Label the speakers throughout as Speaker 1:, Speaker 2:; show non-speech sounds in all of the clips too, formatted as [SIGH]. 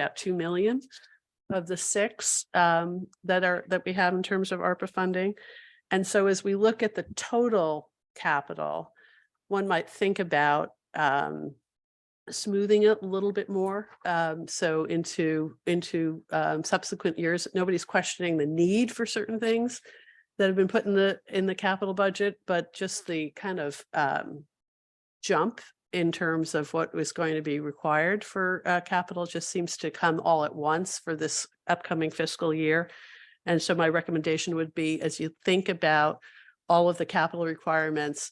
Speaker 1: about two million of the six um, that are, that we have in terms of ARPA funding. And so as we look at the total capital, one might think about um, smoothing it a little bit more. um, So into, into um, subsequent years, nobody's questioning the need for certain things that have been put in the, in the capital budget, but just the kind of um, jump in terms of what was going to be required for uh, capital just seems to come all at once for this upcoming fiscal year. And so my recommendation would be, as you think about all of the capital requirements,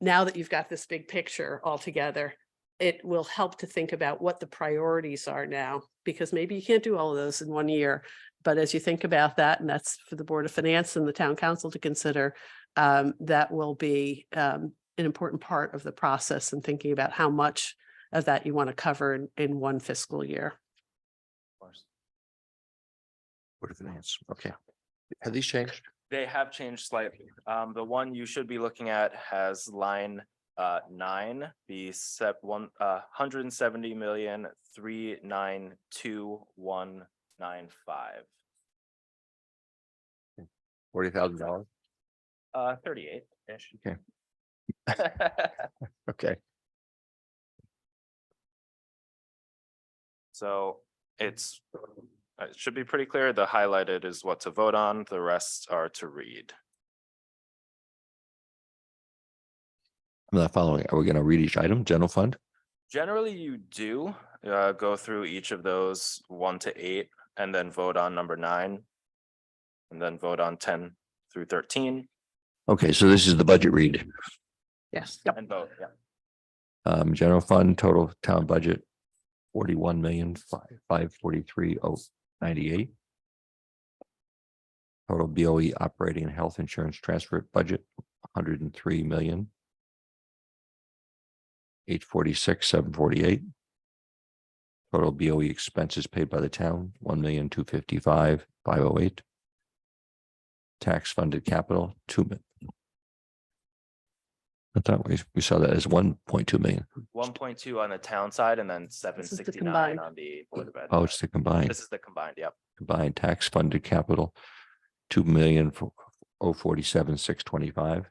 Speaker 1: now that you've got this big picture all together, it will help to think about what the priorities are now, because maybe you can't do all of those in one year. But as you think about that, and that's for the Board of Finance and the Town Council to consider, um, that will be um, an important part of the process and thinking about how much of that you want to cover in, in one fiscal year.
Speaker 2: Board of Finance, okay. Have these changed?
Speaker 3: They have changed slightly. Um, the one you should be looking at has line uh nine, the sep one, uh, hundred and seventy million, three, nine, two, one, nine, five.
Speaker 2: Forty thousand dollars?
Speaker 3: Uh, thirty-eight-ish.
Speaker 2: Okay. Okay.
Speaker 3: [LAUGHS] So it's, uh, it should be pretty clear. The highlighted is what to vote on. The rest are to read.
Speaker 2: I'm not following. Are we gonna read each item? General fund?
Speaker 3: Generally, you do uh go through each of those one to eight and then vote on number nine. And then vote on ten through thirteen
Speaker 2: Okay, so this is the budget read.
Speaker 1: Yes.
Speaker 3: and vote, yeah.
Speaker 2: Um, general fund, total town budget, forty-one million, five, five forty-three, oh, ninety-eight. Total BOE operating and health insurance transfer budget, hundred and three million. Eight forty-six, seven forty-eight. Total BOE expenses paid by the town, one million, two fifty-five, five oh eight. Tax funded capital, two million. I thought we, we saw that as one point two million.
Speaker 3: One point two on the town side and then seven
Speaker 1: is the
Speaker 3: sixty-nine
Speaker 1: combined.
Speaker 3: on the Board of Ed.
Speaker 2: Oh, it's the
Speaker 3: side.
Speaker 2: combined,
Speaker 3: This is the combined, yep.
Speaker 2: combined tax funded capital, two million for oh forty-seven, six twenty-five.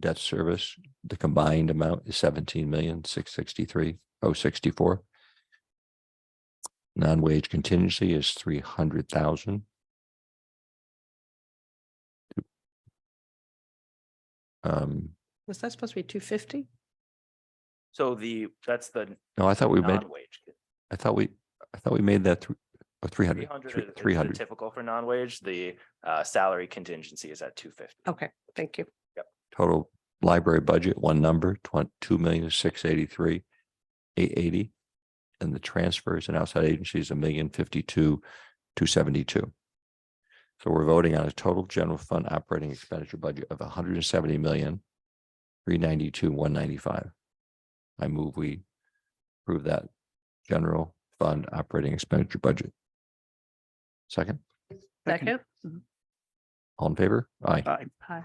Speaker 2: Debt service, the combined amount is seventeen million, six sixty-three, oh sixty-four. Non-wage contingency is three hundred thousand. Um,
Speaker 1: Was that supposed to be two fifty?
Speaker 3: So the, that's the
Speaker 2: no, I thought we made,
Speaker 3: non-wage.
Speaker 2: I thought we, I thought we made that three, or three
Speaker 3: Three
Speaker 2: hundred,
Speaker 3: hundred
Speaker 2: three-
Speaker 3: is
Speaker 2: three
Speaker 3: the
Speaker 2: hundred.
Speaker 3: typical for non-wage. The uh salary contingency is at two fifty.
Speaker 1: Okay, thank you.
Speaker 2: Total library budget, one number, twen- two million, six eighty-three, eight eighty. And the transfers and outside agencies, a million fifty-two, two seventy-two. So we're voting on a total general fund operating expenditure budget of hundred and seventy million, three ninety-two, one ninety-five. I move we approve that general fund operating expenditure budget. Second,
Speaker 1: Second.
Speaker 2: all in favor? Aye.
Speaker 1: Hi.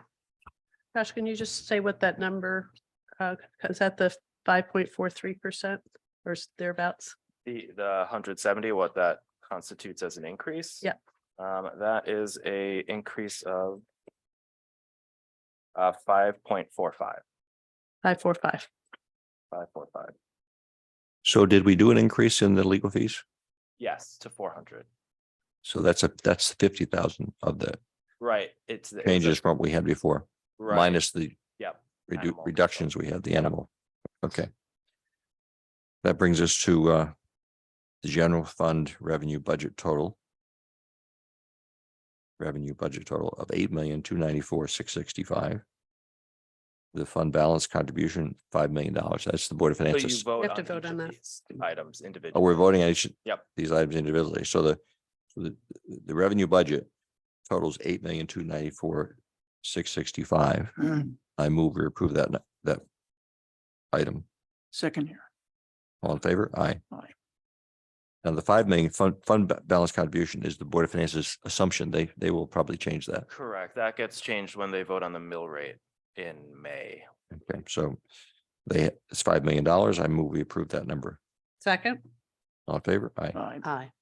Speaker 1: Josh, can you just say what that number, uh, is that the five point four three percent or s- thereabouts?
Speaker 3: The, the hundred seventy, what that constitutes as an increase?
Speaker 1: Yep.
Speaker 3: Um, that is a increase of uh, five point four five,
Speaker 1: Five, four, five.
Speaker 3: five, four, five.
Speaker 2: So did we do an increase in the legal fees?
Speaker 3: Yes, to four hundred.
Speaker 2: So that's a, that's fifty thousand of the
Speaker 3: Right, it's. the- it's a-
Speaker 2: changes from what we had before,
Speaker 3: right,
Speaker 2: minus the
Speaker 3: Yep,
Speaker 2: redu-
Speaker 3: animal control.
Speaker 2: reductions we had, the animal. Okay. That brings us to uh the general fund revenue budget total. Revenue budget total of eight million, two ninety-four, six sixty-five. The fund balance contribution, five million dollars. That's the Board of
Speaker 3: So you
Speaker 2: Finances.
Speaker 3: vote
Speaker 1: have
Speaker 3: on
Speaker 1: to vote
Speaker 3: each
Speaker 1: on that.
Speaker 3: of these items
Speaker 2: Oh,
Speaker 3: individually.
Speaker 2: we're voting on each.
Speaker 3: Yep.
Speaker 2: These items individually. So the, so the, the revenue budget totals eight million, two ninety-four, six sixty-five.
Speaker 4: Mm,
Speaker 2: I move we approve that, n- that item.
Speaker 4: Second here.
Speaker 2: All in favor? Aye.
Speaker 4: Aye.
Speaker 2: Now the five million fund, fund ba- balance contribution is the Board of Finance's assumption. They, they will probably change that.
Speaker 3: Correct, that gets changed when they vote on the mill rate in May.
Speaker 2: Okay, so they, it's five million dollars. I move we approve that number.
Speaker 1: Second,
Speaker 5: All in favor? Aye.
Speaker 2: Aye.
Speaker 3: Aye.